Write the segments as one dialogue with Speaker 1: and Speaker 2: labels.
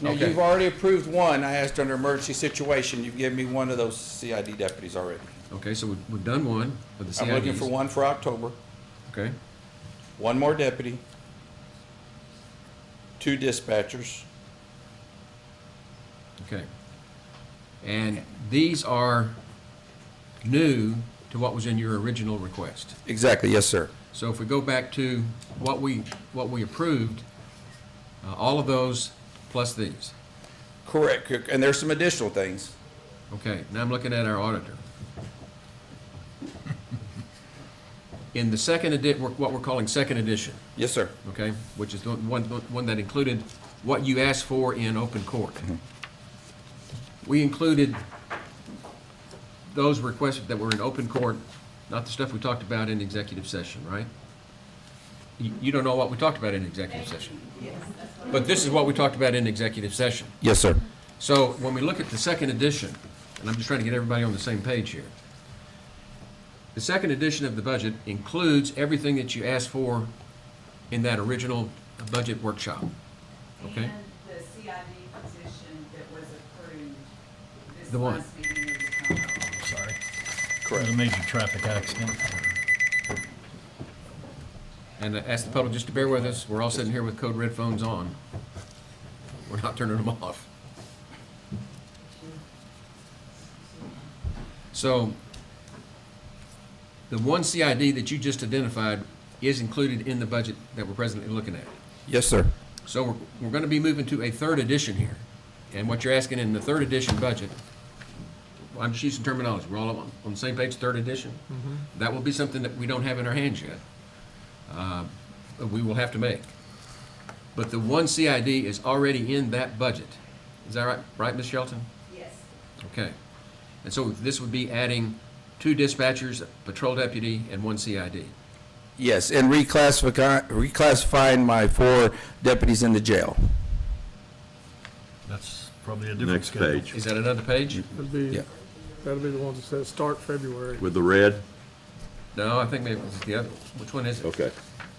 Speaker 1: Now,
Speaker 2: Okay.
Speaker 1: you've already approved one. I asked under emergency situation. You've given me one of those CID deputies already.
Speaker 2: Okay, so we've, we've done one for the CIDs.
Speaker 1: I'm looking for one for October,
Speaker 2: Okay,
Speaker 1: one more deputy, two dispatchers.
Speaker 2: okay. And these are new to what was in your original request.
Speaker 1: Exactly, yes, sir.
Speaker 2: So if we go back to what we, what we approved, uh, all of those plus these.
Speaker 1: Correct, c- and there's some additional things.
Speaker 2: Okay, now I'm looking at our auditor. In the second edit, what we're calling second edition,
Speaker 1: Yes, sir.
Speaker 2: okay, which is the one, the one that included what you asked for in open court. We included those requests that were in open court, not the stuff we talked about in executive session, right? You, you don't know what we talked about in executive session. But this is what we talked about in executive session.
Speaker 1: Yes, sir.
Speaker 2: So when we look at the second edition, and I'm just trying to get everybody on the same page here. The second edition of the budget includes everything that you asked for in that original budget workshop. Okay.
Speaker 3: And the CID position that was approved this
Speaker 2: The one-
Speaker 3: last meeting of the council.
Speaker 4: Sorry. It was
Speaker 1: Correct.
Speaker 4: a major traffic accident.
Speaker 2: And I ask the public just to bear with us. We're all sitting here with code red phones on. We're not turning them off. So the one CID that you just identified is included in the budget that we're presently looking at.
Speaker 1: Yes, sir.
Speaker 2: So we're, we're gonna be moving to a third edition here. And what you're asking in the third edition budget, I'm just using terminology, we're all on, on the same page, third edition. That will be something that we don't have in our hands yet. uh, That we will have to make. But the one CID is already in that budget. Is that right, right, Ms. Shelton?
Speaker 3: Yes,
Speaker 2: Okay. And so this would be adding two dispatchers, a patrol deputy, and one CID.
Speaker 1: Yes, and reclassify, reclassifying my four deputies in the jail.
Speaker 4: That's probably a different
Speaker 5: Next
Speaker 4: schedule.
Speaker 5: page,
Speaker 2: Is that another page?
Speaker 6: That'd be,
Speaker 1: Yeah.
Speaker 6: that'd be the ones that says start February.
Speaker 5: with the red?
Speaker 2: No, I think maybe it's the other, which one is it?
Speaker 5: Okay.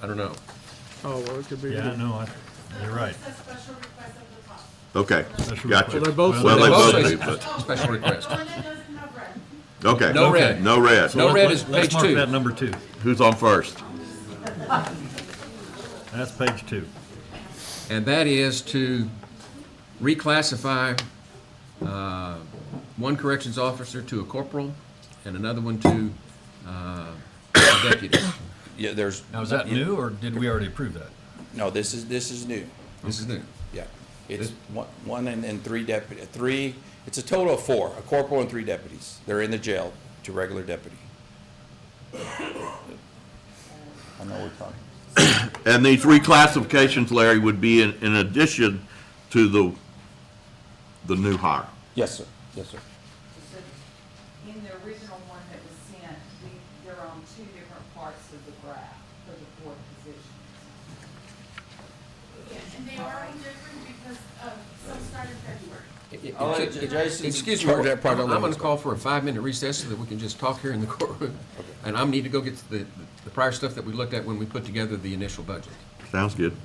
Speaker 2: I don't know.
Speaker 6: Oh, well, it could be.
Speaker 4: Yeah, I
Speaker 6: Well,
Speaker 4: know, I, you're right.
Speaker 3: it's a special request of the top.
Speaker 5: Okay,
Speaker 4: That's
Speaker 5: gotcha.
Speaker 6: they're
Speaker 4: right.
Speaker 6: both.
Speaker 5: Well, they
Speaker 2: both
Speaker 5: both
Speaker 2: say-
Speaker 5: do, but,
Speaker 2: Special request.
Speaker 3: The one that doesn't have red.
Speaker 5: okay.
Speaker 2: No red.
Speaker 5: No red.
Speaker 2: No red is
Speaker 4: Let's
Speaker 2: page two.
Speaker 4: mark that number two.
Speaker 5: Who's on first?
Speaker 4: That's page two.
Speaker 2: And that is to reclassify uh, one corrections officer to a corporal and another one to uh, a deputy.
Speaker 1: Yeah, there's,
Speaker 4: Now, is that new, or did we already approve that?
Speaker 1: no, this is, this is new.
Speaker 2: This is new.
Speaker 1: Yeah. It's one, one and, and three deputy, three, it's a total of four, a corporal and three deputies. They're in the jail to regular deputy. I know we're talking.
Speaker 5: And these reclassifications, Larry, would be in, in addition to the, the new hire.
Speaker 1: Yes, sir. Yes, sir.
Speaker 3: So In the original one that was sent, we, they're on two different parts of the graph for the four positions.
Speaker 7: And they are all different because of, some started February.
Speaker 1: All right, Jason,
Speaker 2: Excuse me,
Speaker 1: charge that
Speaker 2: I'm
Speaker 1: part of
Speaker 2: going
Speaker 1: Lois.
Speaker 2: to call for a five-minute recess so that we can just talk here in the courtroom. And I am need to go get the the prior stuff that we looked at when we put together the initial budget.
Speaker 5: Sounds good.